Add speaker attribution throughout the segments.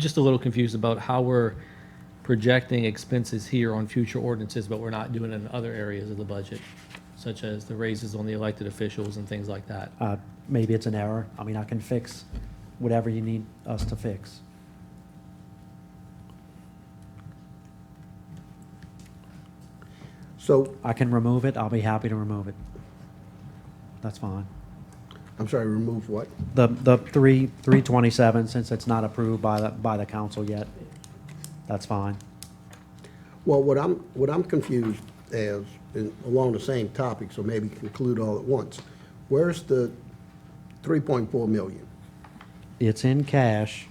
Speaker 1: just a little confused about how we're projecting expenses here on future ordinances, but we're not doing it in other areas of the budget, such as the raises on the elected officials and things like that.
Speaker 2: Uh, Maybe it's an error. I mean, I can fix whatever you need us to fix.
Speaker 3: So,
Speaker 2: I can remove it. I'll be happy to remove it. That's fine.
Speaker 3: I'm sorry, remove what?
Speaker 2: The, the three, 327, since it's not approved by the, by the council yet, that's fine.
Speaker 3: Well, what I'm, what I'm confused as, and along the same topic, so maybe conclude all at once. Where's the 3.4 million?
Speaker 2: It's in cash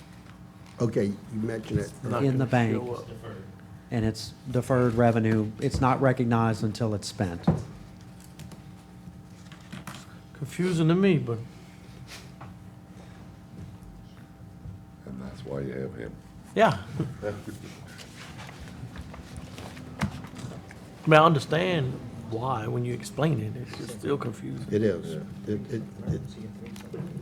Speaker 3: Okay, you mentioned it.
Speaker 2: in the bank. And it's deferred revenue. It's not recognized until it's spent.
Speaker 4: Confusing to me, but
Speaker 5: And that's why you have him.
Speaker 4: yeah. I mean, I understand why when you explain it. It's just still confusing
Speaker 3: It is. It, it, it-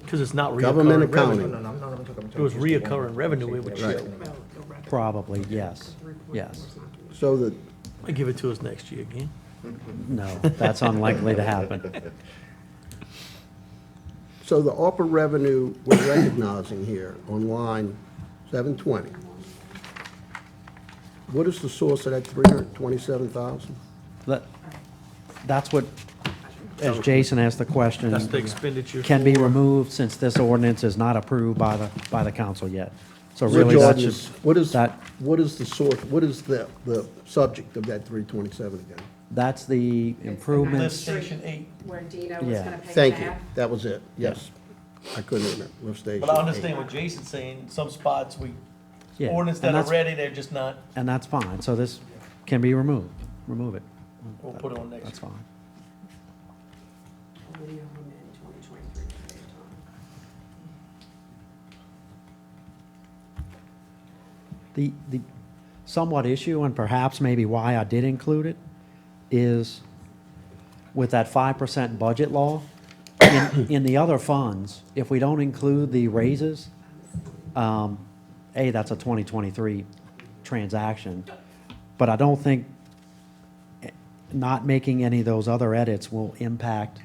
Speaker 4: because it's not
Speaker 3: Government
Speaker 4: reoccurring revenue.
Speaker 3: accounting.
Speaker 4: If it was reoccurring revenue, it would
Speaker 3: Right.
Speaker 4: show.
Speaker 2: Probably, yes. Yes.
Speaker 3: So that,
Speaker 4: They give it to us next year again.
Speaker 2: No, that's unlikely to happen.
Speaker 3: so the ARPA revenue we're recognizing here on line 720. What is the source of that 327,000?
Speaker 2: That, that's what, as Jason asked the question.
Speaker 4: That's the expenditure.
Speaker 2: Mm. Can be
Speaker 4: for-
Speaker 2: removed since this ordinance is not approved by the, by the council yet. So
Speaker 3: Which
Speaker 2: really, that's
Speaker 3: ordinance-
Speaker 2: just,
Speaker 3: What is,
Speaker 2: that,
Speaker 3: what is the source, what is the, the subject of that 327 again?
Speaker 2: that's the improvements.
Speaker 6: Street
Speaker 4: Station eight.
Speaker 6: Where Dita was
Speaker 2: Yeah.
Speaker 6: gonna pay
Speaker 3: Thank you.
Speaker 6: half.
Speaker 3: That was it. Yes. I couldn't remember. Lift station.
Speaker 4: But I understand what Jason's saying. Some spots we
Speaker 2: Yeah,
Speaker 4: ordinance
Speaker 2: and
Speaker 4: that are
Speaker 2: that's-
Speaker 4: ready, they're just not.
Speaker 2: And that's fine. So this can be removed. Remove it.
Speaker 4: We'll put it on next.
Speaker 2: That's fine.
Speaker 6: Only on in 2023 saved on.
Speaker 2: The, the somewhat issue, and perhaps maybe why I did include it, is with that five percent budget law, in, in the other funds, if we don't include the raises, um, A, that's a twenty twenty-three transaction. But I don't think eh, not making any of those other edits will impact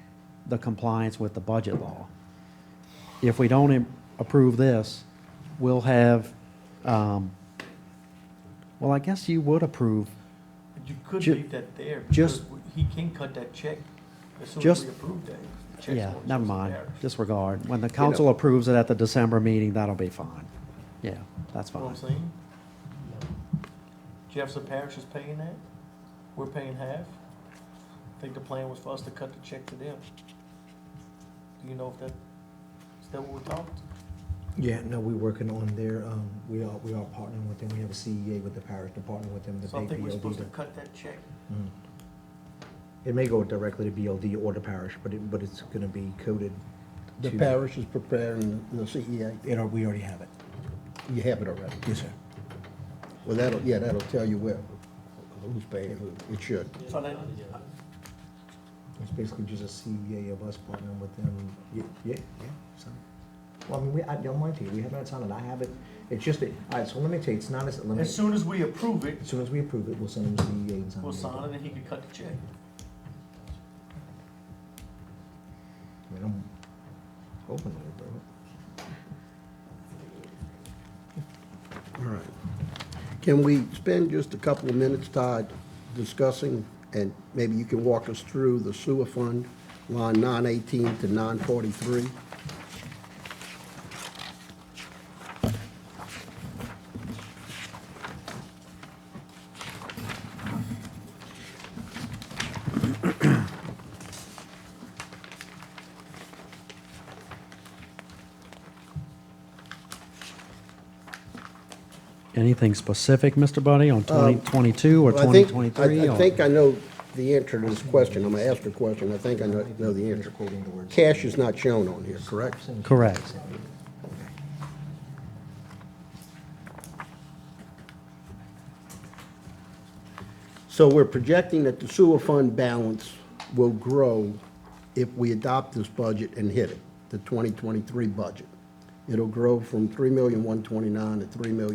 Speaker 2: the compliance with the budget law if we don't im- approve this, we'll have, um, well, I guess you would approve,
Speaker 4: But You could
Speaker 2: Ju-
Speaker 4: leave that there.
Speaker 2: just-
Speaker 4: because He can cut that check as soon as
Speaker 2: Just-
Speaker 4: we approve that. The check's
Speaker 2: yeah,
Speaker 4: going to
Speaker 2: never
Speaker 4: us
Speaker 2: mind,
Speaker 4: there.
Speaker 2: disregard. When the council approves it at the December meeting, that'll be fine. Yeah, that's
Speaker 4: You know
Speaker 2: fine.
Speaker 4: what I'm saying? Jefferson Parish is paying that. We're paying half. I think the plan was for us to cut the check to them. Do you know if that, is that what we talked?
Speaker 7: Yeah, no, we're working on their, um, we are, we are partnering with them, we have a CEA with the parish to partner with them, the
Speaker 4: So I think we're supposed to
Speaker 7: BOD.
Speaker 4: cut that check.
Speaker 7: It may go directly to BOD or the parish, but it, but it's gonna be coded
Speaker 3: The
Speaker 7: to.
Speaker 3: parish is preparing the E CEA.
Speaker 7: It, al- we already have it,
Speaker 3: You have it already.
Speaker 7: yes, sir.
Speaker 3: Well, that'll, yeah, that'll tell you where, who's paying who. It should.
Speaker 4: So that,
Speaker 7: It's basically just a CEA of us partnering with them, yeah, yeah, yeah, so. Well, I mean, we, I don't mind to, we haven't had time, and I have it, it's just, that- all right, so let me tell you, it's not as, let me,
Speaker 4: as
Speaker 7: as
Speaker 4: soon as we approve it,
Speaker 7: soon as we approve it, we'll send them CEA and sign it.
Speaker 4: we'll sign it and he can cut the check.
Speaker 7: I mean, I'm hoping they'll approve it.
Speaker 3: All right. Can we spend just a couple of minutes, Todd, discussing, and maybe you can walk us through the sewer fund, line 918 to 943?
Speaker 2: Anything specific, Mr. Buddy, on twenty twenty-two or
Speaker 3: Um, Well, I
Speaker 2: twenty
Speaker 3: think-
Speaker 2: twenty-three?
Speaker 3: I- I think I know the answer to this question. I'm going to ask the question. I think I know know the answer.
Speaker 7: Misquoting the words.
Speaker 3: Cash is not shown on here, correct?
Speaker 2: Correct.
Speaker 3: So we're projecting that the sewer fund balance will grow if we adopt this budget and hit it, the 2023 budget. It'll grow from 3,129 to 3,000,000.